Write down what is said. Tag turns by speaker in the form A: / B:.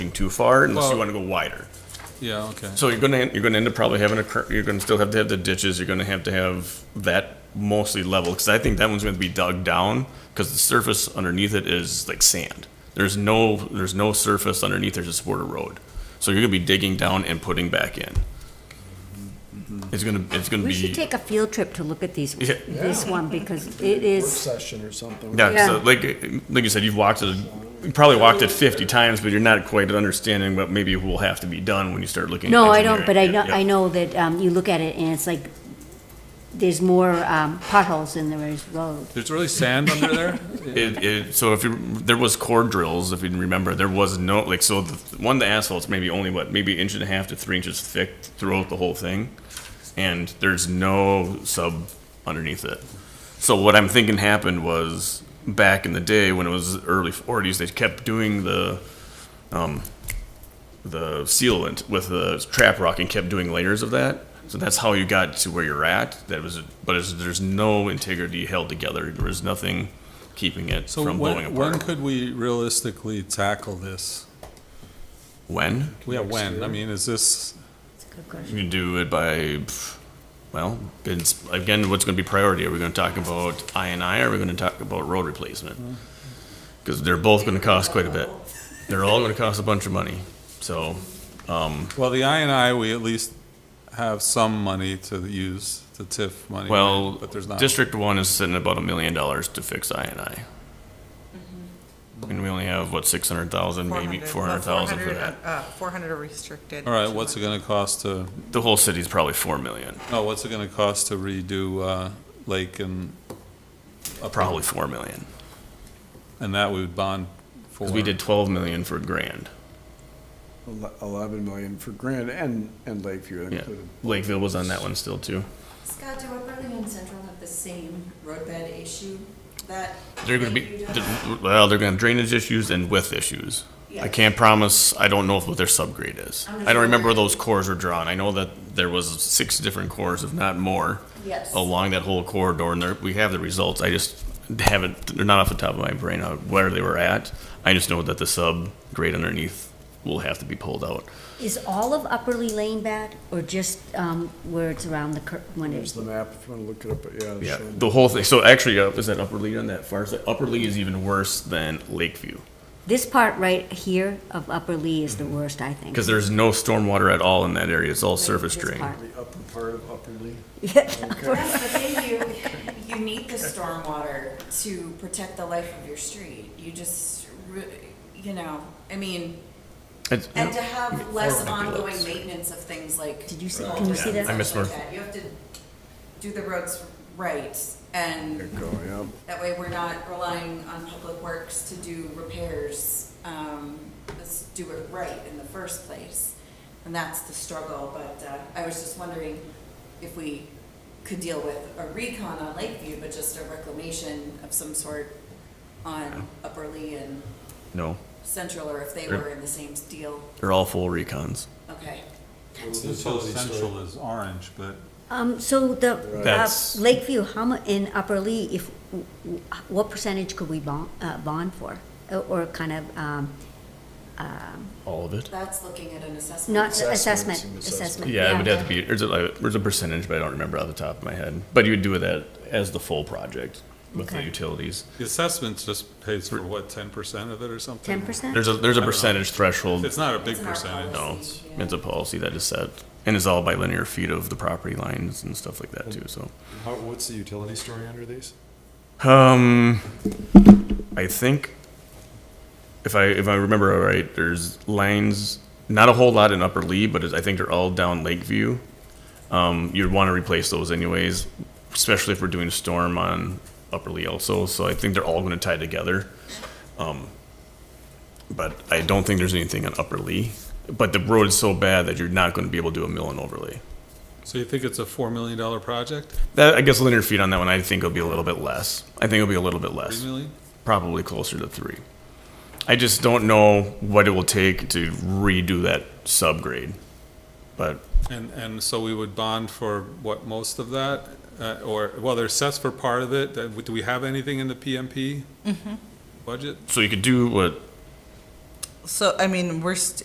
A: looking too far unless you
B: Well-
A: want to go wider.
B: Yeah, okay.
A: So you're gonna, you're gonna end up probably having a, cur- you're gonna still have to have the ditches, you're gonna have to have that mostly level, because I think that one's gonna be dug down, because the surface underneath it is like sand. There's no, there's no surface underneath there to support a road. So you're gonna be digging down and putting back in. It's gonna, it's gonna
C: We should
A: be,
C: take a field trip to look at these,
A: Yeah.
C: this one, because it
D: Work
C: is,
D: session or something.
A: yeah, so
C: yeah.
A: like, like you said, you've walked it, you probably walked it fifty times, but you're not quite understanding what maybe will have to be done when you start looking. at
C: no, I don't, but I
A: engineering.
C: know,
A: Yep.
C: I know that um, you look at it and it's like, there's more um, potholes than there is road.
B: There's really sand under there?
A: It, it, so if you, there was core drills, if you remember, there was no like so the one the asphalt's maybe only what maybe inch and a half to three inches thick throughout the whole thing, and there's no sub underneath it. So what I'm thinking happened was back in the day when it was early 40s, they kept doing the um, the sealant with the trap rock and kept doing layers of that. So that's how you got to where you're at. That was, but it's, there's no integrity held together. There was nothing keeping it
B: So
A: from blowing
B: when, when
A: apart.
B: could we realistically tackle this?
A: When?
B: Yeah, when? I mean, is this,
C: It's a good question.
A: You can do it by, pff, well, it's, again, what's going to be priority? Are we going to talk about I and I? Or are we going to talk about road replacement? Because they're both going to cost quite a bit. They're all going to cost a bunch of money. So
B: well, the I and I, we at least have some money to use, the TIF money. right?
A: Well,
B: But there's not.
A: District One is sitting about a million dollars to fix I and I. I mean, we only have, what, six hundred thousand, maybe Mm-hmm. four hundred thousand for that.
E: Four hundred are restricted.
B: All right, what's it gonna cost to,
A: The whole city's probably four million,
B: no, what's it gonna cost to redo, uh, Lake and,
A: probably four million.
B: and that we would bond for?
A: Because we did twelve million for Grand,
D: Ele- Eleven million for Grand and, and Lakeview
A: yeah.
D: included.
A: Lakeville was on that one still too.
F: Scott, do Oberlin and Central have the same roadbed issue that?
A: They're gonna
F: that
A: be,
F: you don't?
A: well, they're gonna have drainage issues and width issues. I
F: Yeah.
A: can't promise, I don't know what their subgrade is.
F: I'm just
A: I don't remember where
F: wondering.
A: those cores were drawn. I know that there was six different cores, if not more.
F: Yes.
A: along that whole corridor, and there, we have the results. I just haven't, they're not off the top of my brain uh, where they were at. I just know that the sub grade underneath will have to be pulled out.
C: Is all of Upperly Lane bad, or just um, where it's around the, cur- when
D: There's
C: it's,
D: the map if you want to look it up, but yeah. it's
A: Yeah,
D: showing-
A: the whole thing. So actually, uh, is that Upper Lee on that far side? Upper Lee is even worse than Lakeview
C: this part right here of Upperly is the
A: Mm-hmm.
C: worst, I think.
A: because there's no stormwater at all in that area. It's all
C: Right,
A: surface
C: this
A: drain.
C: part.
D: The upper part of Upper Lee.
F: Yes, but then you, you need the stormwater to protect the life of your street. You just, re- you know, I mean,
A: It's-
F: and to have
A: Might
F: less
A: be
F: ongoing
A: less.
F: maintenance of things like.
C: Did you see-
F: mold
C: can you
F: and
C: see that?
F: stuff
A: I missed
F: like
A: one.
F: that. You have to do the roads right and
D: There you go, yeah.
F: That way, we're not relying on Public Works to do repairs. Um, Let's do it right in the first place. And that's the struggle, but uh, I was just wondering if we could deal with a recon on Lakeview, but just a reclamation of some sort on Upper Lee and
A: No,
F: Central, or if they
A: Sure.
F: were in the same deal.
A: they're all full recons.
F: Okay.
B: This whole central is orange, but
C: Um, so the, uh,
A: That's-
C: Lakeview, how mu, in Upper Lee, if, w- w- what percentage could we bond, uh, bond for? Or- Or kind of, um, uh,
A: All of it.
F: That's looking at an assessment.
C: not
D: Assessment,
C: assessment,
D: some assessment.
C: assessment.
A: Yeah, it would have to be. There's a, like, there's a percentage, but I don't remember off the top of my head. But you would do that as the full project with the
C: Okay.
A: utilities.
B: the assessment just pays for what, ten percent of it or something?
C: Ten percent?
A: There's a there's a
B: know.
A: percentage threshold.
B: It's not a big
F: It's in our
B: percentage.
F: policy.
A: no, it's, it's a policy that is set, and it's all by linear feet of the property lines and stuff like that too. So,
G: How, what's the utility story under these?
A: um, I think if I if I remember right, there's lines. Not a whole lot in Upper Lee, but it's- I think they're all down Lakeview. Um, you'd want to replace those anyways, especially if we're doing storm on Upper Lee also. So I think they're all going to tie together. Um, but I don't think there's anything on Upper Lee. But the road is so bad that you're not going to be able to do a mill and overlay.
B: So you think it's a four million dollar project?
A: That I guess linear feet on that one. I think it'll be a little bit less. I think it'll be a little bit less
B: Three million?
A: probably closer to three. I just don't know what it will take to redo that subgrade. But
B: And, and so we would bond for what, most of that? Uh, Or, well, there's sets for part of it. Uh, Do we have anything in the PMP budget?
A: so you could do what
E: So, I mean, we're, st-